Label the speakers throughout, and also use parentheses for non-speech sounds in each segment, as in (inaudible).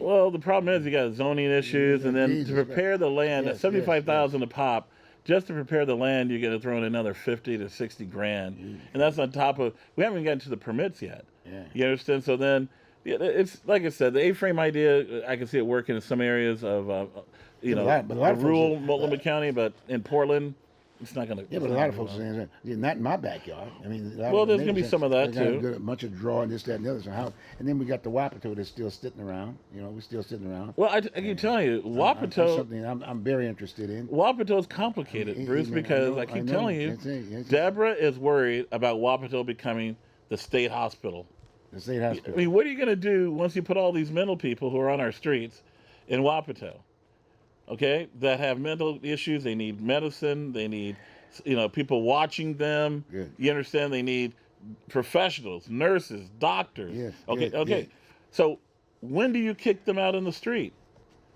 Speaker 1: Well, the problem is you got zoning issues, and then to
Speaker 2: Jesus, right.
Speaker 1: prepare the land,
Speaker 2: Yes,
Speaker 1: at
Speaker 2: yes,
Speaker 1: seventy-five thousand a pop, just to prepare the land, you're gonna throw in another fifty to sixty grand, and that's on top of, we haven't gotten to the permits yet.
Speaker 2: Yeah.
Speaker 1: You understand? So then, yeah, it's, like I said, the A-frame idea, I can see it working in some areas of, uh, you know,
Speaker 2: lot- but a lot of folks- uh,
Speaker 1: rural Multnomah County, but in Portland, it's not gonna.
Speaker 2: Yeah, but a lot of folks are saying, yeah, not in my backyard. I mean, a lot
Speaker 1: Well,
Speaker 2: of
Speaker 1: there's
Speaker 2: neighbors
Speaker 1: gonna be
Speaker 2: have-
Speaker 1: some of that,
Speaker 2: they got a
Speaker 1: too.
Speaker 2: good- A bunch of drawing this, that, and the other. So how? And then we got the Wapato that's still sitting around. You know, we're still sitting around.
Speaker 1: Well, I, I keep telling you,
Speaker 2: I'm- That's
Speaker 1: Wapato,
Speaker 2: something I'm, I'm very interested in.
Speaker 1: Wapato is
Speaker 2: I- I-
Speaker 1: complicated, Bruce,
Speaker 2: I
Speaker 1: because
Speaker 2: know-
Speaker 1: I
Speaker 2: I
Speaker 1: keep
Speaker 2: know.
Speaker 1: telling you,
Speaker 2: That's it, that's it.
Speaker 1: Deborah is worried about Wapato becoming the state hospital.
Speaker 2: The state hospital.
Speaker 1: I mean, what are you going to do once you put all these mental people who are on our streets in Wapato? Okay, that have mental issues, they need medicine, they need, you know, people watching them.
Speaker 2: Good.
Speaker 1: You understand? They need professionals, nurses, doctors.
Speaker 2: Yes,
Speaker 1: okay,
Speaker 2: good,
Speaker 1: okay.
Speaker 2: good.
Speaker 1: So, when do you kick them out in the street?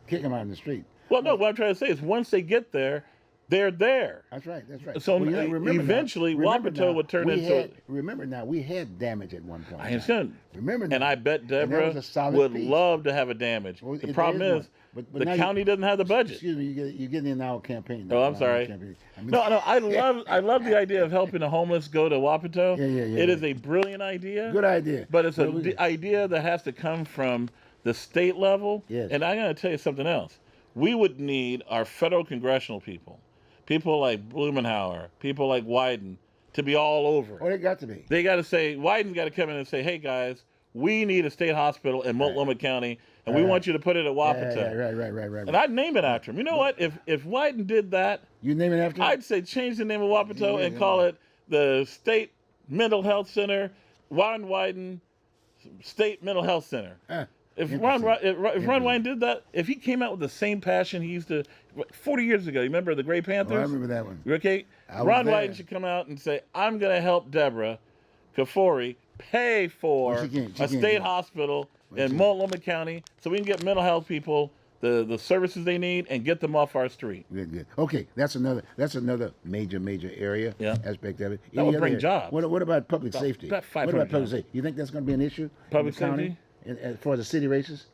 Speaker 2: Kick them out in the street.
Speaker 1: Well, no, what I'm trying to say is once they get there, they're there.
Speaker 2: That's right. That's right.
Speaker 1: So
Speaker 2: Well, you
Speaker 1: e-
Speaker 2: remember now-
Speaker 1: eventually
Speaker 2: remember
Speaker 1: Wapato
Speaker 2: now,
Speaker 1: would turn
Speaker 2: we
Speaker 1: into
Speaker 2: had-
Speaker 1: a-
Speaker 2: Remember now, we had damage at one point.
Speaker 1: I
Speaker 2: in time.
Speaker 1: understand.
Speaker 2: Remember now.
Speaker 1: And I bet
Speaker 2: And that
Speaker 1: Deborah
Speaker 2: was a solid
Speaker 1: would
Speaker 2: piece.
Speaker 1: love to have a damage.
Speaker 2: Well,
Speaker 1: the
Speaker 2: it-
Speaker 1: problem
Speaker 2: there is
Speaker 1: is,
Speaker 2: one. But- but now
Speaker 1: the
Speaker 2: you-
Speaker 1: county doesn't have the budget.
Speaker 2: Excuse me, you get, you're getting in our campaign. now,
Speaker 1: Oh, I'm
Speaker 2: our
Speaker 1: sorry.
Speaker 2: campaign. I mean-
Speaker 1: (laughs) No, no, I love I love the idea of helping the homeless go to Wapato.
Speaker 2: Yeah, yeah, yeah,
Speaker 1: It
Speaker 2: yeah.
Speaker 1: is a brilliant idea.
Speaker 2: Good idea.
Speaker 1: But it's
Speaker 2: Well,
Speaker 1: an
Speaker 2: we-
Speaker 1: idea that has to come from the state level.
Speaker 2: Yes.
Speaker 1: And I'm going to tell you something else. We would need our federal congressional people, people like Blumenauer, people like Wyden, to be all over.
Speaker 2: Oh, they got to be.
Speaker 1: They got to say, Wyden's got to come in and say, hey guys, we need a state hospital in Multnomah County, and we
Speaker 2: Right.
Speaker 1: want you to put it at
Speaker 2: Yeah,
Speaker 1: Wapato.
Speaker 2: yeah, right, right, right, right.
Speaker 1: And
Speaker 2: right.
Speaker 1: I'd name it after him. You know what? If if Wyden did that,
Speaker 2: You name it after? him?
Speaker 1: I'd say change the name of Wapato
Speaker 2: Yeah,
Speaker 1: and
Speaker 2: yeah.
Speaker 1: call it the State Mental Health Center, Ron Wyden State Mental Health Center.
Speaker 2: Huh.
Speaker 1: If Ron,
Speaker 2: Interesting.
Speaker 1: Wy- if Ron- if Ron Wyden did that, if he came out with the same passion he used to, 40 years ago, you remember the Grey
Speaker 2: Oh, I
Speaker 1: Panthers?
Speaker 2: remember that one.
Speaker 1: Okay,
Speaker 2: I was
Speaker 1: Ron
Speaker 2: there.
Speaker 1: Wyden should come out and say, "I'm going to help Deborah Kafori pay for
Speaker 2: Well, she can't- she
Speaker 1: a
Speaker 2: can't do
Speaker 1: state
Speaker 2: it.
Speaker 1: hospital
Speaker 2: she-
Speaker 1: in Multnomah County, so we can get mental health people the the services they need and get them off our street."
Speaker 2: Good, good. Okay, that's another. That's another major, major area
Speaker 1: Yeah.
Speaker 2: aspect of it.
Speaker 1: That
Speaker 2: Any
Speaker 1: would
Speaker 2: other
Speaker 1: bring
Speaker 2: area?
Speaker 1: jobs.
Speaker 2: What, what about public safety?
Speaker 1: about
Speaker 2: what
Speaker 1: 500
Speaker 2: about public
Speaker 1: jobs.
Speaker 2: safety? You think that's going to be an issue?
Speaker 1: Public
Speaker 2: in the county? in, in- for the city races?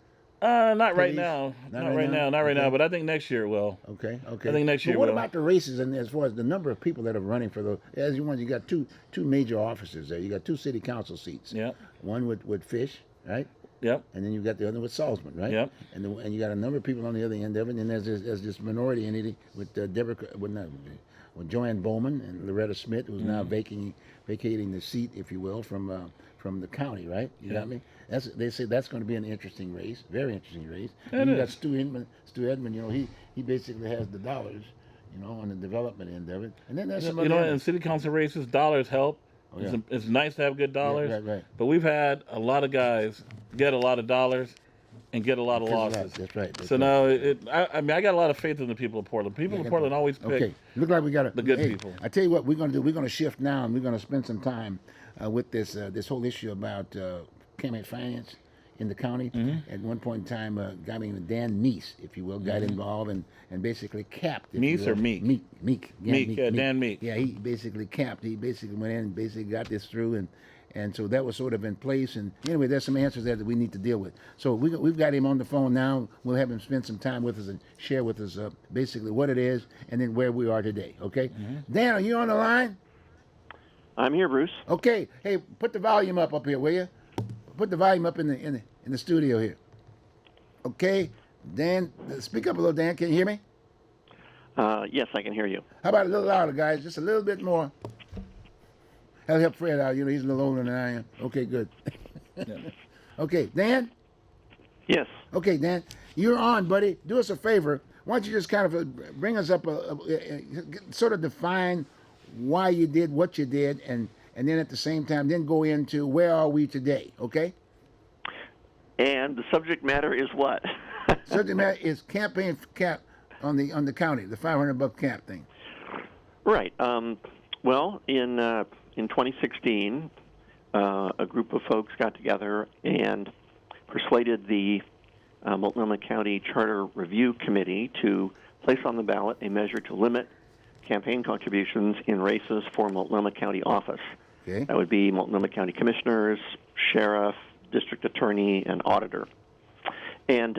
Speaker 1: Uh, not right
Speaker 2: Police?
Speaker 1: now. Not, right, now. Not right now. But I think next year it will.
Speaker 2: Okay, okay.
Speaker 1: think next year
Speaker 2: But what
Speaker 1: we'll-
Speaker 2: about the races and as far as the number of people that are running for those? As you want, you got two two major offices there. You got two city council seats.
Speaker 1: Yep.
Speaker 2: One with with Fish, right?
Speaker 1: Yep.
Speaker 2: And then you got the other with Salzman, right?
Speaker 1: Yep.
Speaker 2: And the, and you got a number of people on the other end of it. And there's this, there's this minority entity with uh, Deborah, with, not, with Joanne Bowman and Loretta Smith, who's now
Speaker 1: Mm-hmm.
Speaker 2: vacating vacating the seat, if you will, from uh, from the county, right? You got me. That's they say that's going to be an interesting race, very interesting race. and you got Stu Edmund. Stu Edmund, you know, he he basically has the dollars, you know, on the development end of it. And then there's some
Speaker 1: You know,
Speaker 2: other
Speaker 1: in city council races, dollars help.
Speaker 2: yeah.
Speaker 1: it's, it's nice to have good dollars.
Speaker 2: right, right.
Speaker 1: But we've had a lot of guys get a lot of dollars and get a lot of
Speaker 2: That's right,
Speaker 1: losses.
Speaker 2: that's right, that's
Speaker 1: so
Speaker 2: right.
Speaker 1: now, it, I, I mean, I got a lot of faith in the people of Portland. People of Portland always pick.
Speaker 2: Okay, look like we got to the
Speaker 1: good people.
Speaker 2: I tell you what, we're going to do. We're going to shift now, and we're going to spend some time uh, with this uh, this whole issue about uh, campaign finance in the county.
Speaker 1: Mm-hmm.
Speaker 2: At one point in time, uh, a guy named Dan Meese, if you will, got involved and and basically capped. if you
Speaker 1: Meese or
Speaker 2: will.
Speaker 1: Meek?
Speaker 2: Meek, Meek, yeah,
Speaker 1: Meek, yeah, Dan Meek.
Speaker 2: Yeah, he basically capped. He basically went in and basically got this through and. And so that was sort of in place. And anyway, there's some answers there that we need to deal with. So we, we've got him on the phone now. We'll have him spend some time with us and share with us uh, basically what it is and then where we are today. Okay?
Speaker 1: Mm-hmm.
Speaker 2: Dan, are you on the line?
Speaker 3: I'm here, Bruce.
Speaker 2: Okay. Hey, put the volume up up here, will you? Put the volume up in the in the, in the studio here. Okay, Dan, uh, speak up a little, Dan. Can you hear me?
Speaker 3: Uh, yes, I can hear you.
Speaker 2: How about a little louder, guys? Just a little bit more. That'll help Fred out. You know, he's a little older than I am. Okay, good. (laughs) okay, Dan.
Speaker 3: Yes.
Speaker 2: Okay, Dan, you're on, buddy. Do us a favor. Why don't you just kind of uh, bring us up, a, a, a- sort of define why you did what you did, and and then at the same time, then go into where are we today? Okay.
Speaker 3: And the subject matter is what? (laughs)
Speaker 2: Subject matter is campaign cap on the on the county, the 500 buck cap thing.
Speaker 3: right. Um, well, in uh, in 2016, uh, a group of folks got together and persuaded the uh, Multnomah County Charter Review Committee to place on the ballot a measure to limit campaign contributions in races for Multnomah County office.
Speaker 2: Okay.
Speaker 3: That would be Multnomah County Commissioners, Sheriff, District Attorney, and Auditor. And